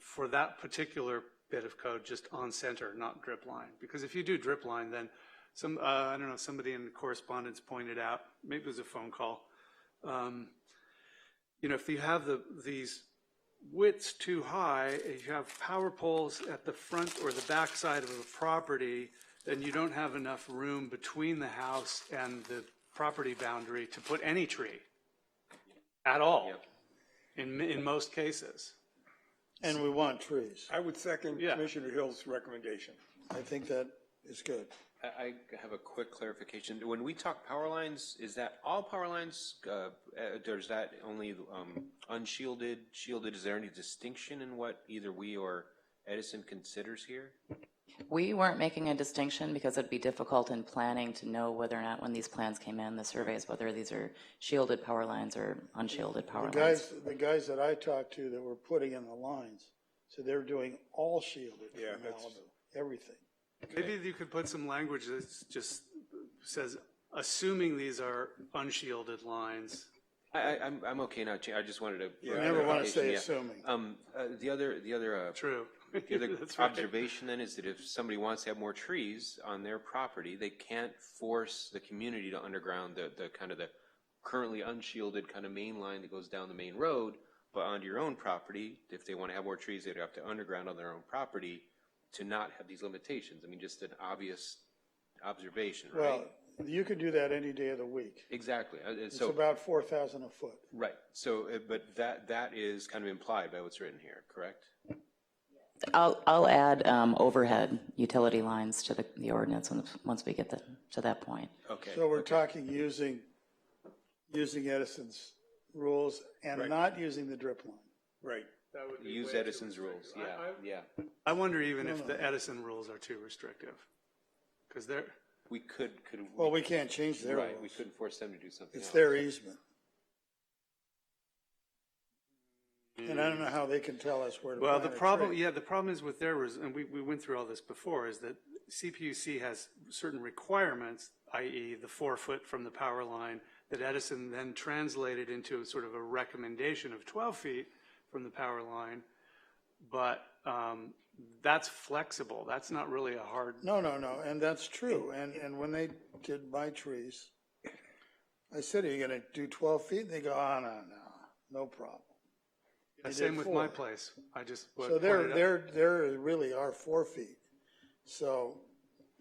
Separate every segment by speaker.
Speaker 1: for that particular bit of code, just on center, not drip line. Because if you do drip line, then some, uh, I don't know, somebody in correspondence pointed out, maybe it was a phone call. um, You know, if you have the, these widths too high, if you have power poles at the front or the back side of a property, then you don't have enough room between the house and the property boundary to put any tree at all, in, in most cases.
Speaker 2: And we want trees.
Speaker 3: I would second
Speaker 1: Yeah.
Speaker 3: Commissioner Hill's recommendation.
Speaker 2: I think that is good.
Speaker 4: I, I have a quick clarification. When we talk power lines, is that all power lines? Uh, uh, or is that only um, unshielded, shielded? Is there any distinction in what either we or Edison considers here?
Speaker 5: We weren't making a distinction because it'd be difficult in planning to know whether or not, when these plans came in, the surveys, whether these are shielded power lines or unshielded power
Speaker 2: The
Speaker 5: lines.
Speaker 2: guys, the guys that I talked to that were putting in the lines, so they're doing all shielded
Speaker 3: Yeah,
Speaker 2: from
Speaker 3: that's-
Speaker 2: Malibu, everything.
Speaker 1: Maybe you could put some language that just says, assuming these are unshielded lines.
Speaker 4: I, I, I'm, I'm okay now. I just wanted to.
Speaker 2: I never want to say
Speaker 4: Yeah.
Speaker 2: assuming.
Speaker 4: Um, uh, the other, the other uh,
Speaker 1: True.
Speaker 4: The other
Speaker 1: That's right.
Speaker 4: observation then is that if somebody wants to have more trees on their property, they can't force the community to underground the, the kind of the currently unshielded kind of main line that goes down the main road, but onto your own property, if they want to have more trees, they'd have to underground on their own property to not have these limitations. I mean, just an obvious observation,
Speaker 2: Well,
Speaker 4: right?
Speaker 2: you can do that any day of the week.
Speaker 4: Exactly. Uh, and
Speaker 2: It's
Speaker 4: so,
Speaker 2: about four thousand a foot.
Speaker 4: right. So, uh, but that, that is kind of implied by what's written here, correct?
Speaker 5: I'll, I'll add um, overhead utility lines to the, the ordinance once- once we get the- to that point.
Speaker 4: Okay.
Speaker 2: So we're talking using, using Edison's rules and
Speaker 3: Right.
Speaker 2: not using the drip line.
Speaker 3: Right.
Speaker 1: That would be way
Speaker 4: Use
Speaker 1: too
Speaker 4: Edison's rules.
Speaker 1: restrictive. I-
Speaker 4: Yeah,
Speaker 1: I-
Speaker 4: yeah.
Speaker 1: I wonder even if the Edison rules are too restrictive. Because they're,
Speaker 4: We could, could.
Speaker 2: Well, we can't change their
Speaker 4: Right, we
Speaker 2: rules.
Speaker 4: couldn't force them to do something
Speaker 2: It's
Speaker 4: else.
Speaker 2: their e- easement. And I don't know how they can tell us where to
Speaker 1: well,
Speaker 2: plant
Speaker 1: the
Speaker 2: a
Speaker 1: problem,
Speaker 2: tree.
Speaker 1: yeah, the problem is with their, res- and we, we went through all this before, is that CPUC has certain requirements, i.e. the four foot from the power line, that Edison then translated into sort of a recommendation of 12 feet from the power line. But um, that's flexible. That's not really a hard
Speaker 2: No, no, no, and that's true, and, and when they did my trees, I said, are you gonna do twelve feet? They go, oh, no, no, no problem.
Speaker 1: Yeah,
Speaker 2: You
Speaker 1: Same
Speaker 2: did
Speaker 1: with my
Speaker 2: four.
Speaker 1: place. I just. what
Speaker 2: So there,
Speaker 1: pointed out-
Speaker 2: there, there really are four feet, so,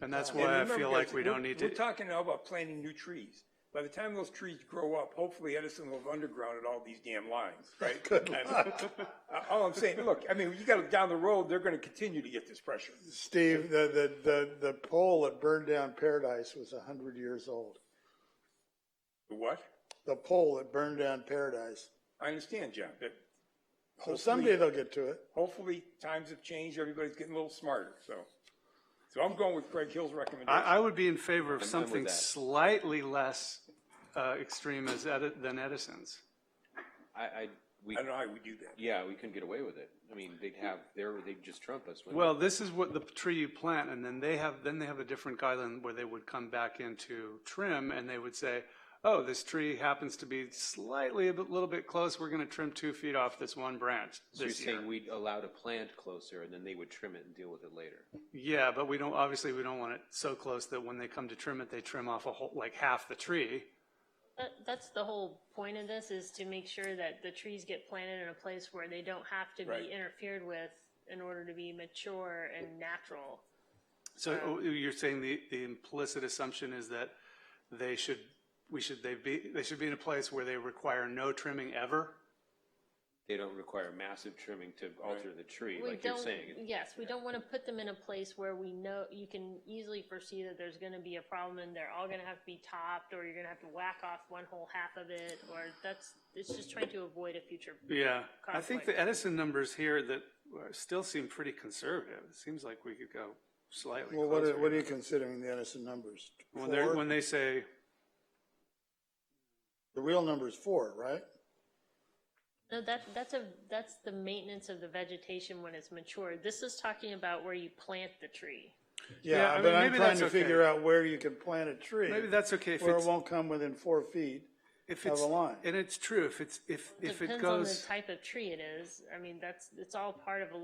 Speaker 1: And that's
Speaker 3: And
Speaker 1: why I
Speaker 3: remember,
Speaker 1: feel
Speaker 3: guys,
Speaker 1: like we
Speaker 3: we're-
Speaker 1: don't need
Speaker 3: We're
Speaker 1: to,
Speaker 3: talking now about planting new trees. By the time those trees grow up, hopefully Edison will have undergrounded all these damn lines, right? Good All I'm saying, look, I mean, you got, down the road, they're gonna continue to get this pressure.
Speaker 2: Steve, the, the, the, the pole that burned down Paradise was a hundred years old.
Speaker 3: The What?
Speaker 2: The pole that burned down Paradise,
Speaker 3: I understand, John, but
Speaker 2: so someday they'll get to it.
Speaker 3: hopefully times have changed, everybody's getting a little smarter, so. So I'm going with Craig Hill's recommendation.
Speaker 1: I, I would be in favor of
Speaker 4: with
Speaker 1: something
Speaker 4: that.
Speaker 1: slightly less uh, extreme as, Edi- than Edison's.
Speaker 4: I, I, we,
Speaker 3: I don't know how we do that.
Speaker 4: yeah, we couldn't get away with it. I mean, they'd have, they're, they'd just trump us. wouldn't
Speaker 1: Well, this is what the tree you plant, and then they have, then they have a different guideline where they would come back into trim, and they would say, oh, this tree happens to be slightly, a bit- little bit close, we're gonna trim two feet off this one branch
Speaker 4: they? So you're
Speaker 1: this year.
Speaker 4: saying we'd allow to plant closer and then they would trim it and deal with it later?
Speaker 1: Yeah, but we don't, obviously, we don't want it so close that when they come to trim it, they trim off a whole, like half the tree.
Speaker 6: That, that's the whole point of this, is to make sure that the trees get planted in a place where they don't have to
Speaker 3: Right.
Speaker 6: be interfered with in order to be mature and natural.
Speaker 1: So oh, you're saying the, the implicit assumption is that they should, we should, they be, they should be in a place where they require no trimming ever?
Speaker 4: They don't require massive trimming to alter the tree,
Speaker 6: We
Speaker 4: like you're
Speaker 6: don't-
Speaker 4: saying.
Speaker 6: Yes, we don't want to put them in a place where we know, you can easily foresee that there's going to be a problem and they're all going to have to be topped, or you're going to have to whack off one whole half of it, or that's, it's just trying to avoid a future.
Speaker 1: Yeah. I think the
Speaker 6: Conflict.
Speaker 1: Edison numbers here that are- still seem pretty conservative. It seems like we could go slightly
Speaker 2: Well, what are, what are
Speaker 1: closer.
Speaker 2: you considering the Edison numbers?
Speaker 1: When they're,
Speaker 2: Four?
Speaker 1: when they say,
Speaker 2: The real number is four, right?
Speaker 6: No, that, that's a, that's the maintenance of the vegetation when it's mature. This is talking about where you plant the tree.
Speaker 1: Yeah,
Speaker 2: Yeah,
Speaker 1: I
Speaker 2: but
Speaker 1: mean,
Speaker 2: I'm
Speaker 1: maybe
Speaker 2: trying
Speaker 1: that's
Speaker 2: to
Speaker 1: okay.
Speaker 2: figure out where you can plant a tree.
Speaker 1: maybe that's okay if
Speaker 2: Where it
Speaker 1: it's,
Speaker 2: won't come within four feet.
Speaker 1: if
Speaker 2: have
Speaker 1: it's,
Speaker 2: a line.
Speaker 1: and it's true, if it's, if, if it
Speaker 6: Depends on the
Speaker 1: goes.
Speaker 6: type of tree it is. I mean, that's, it's all part of a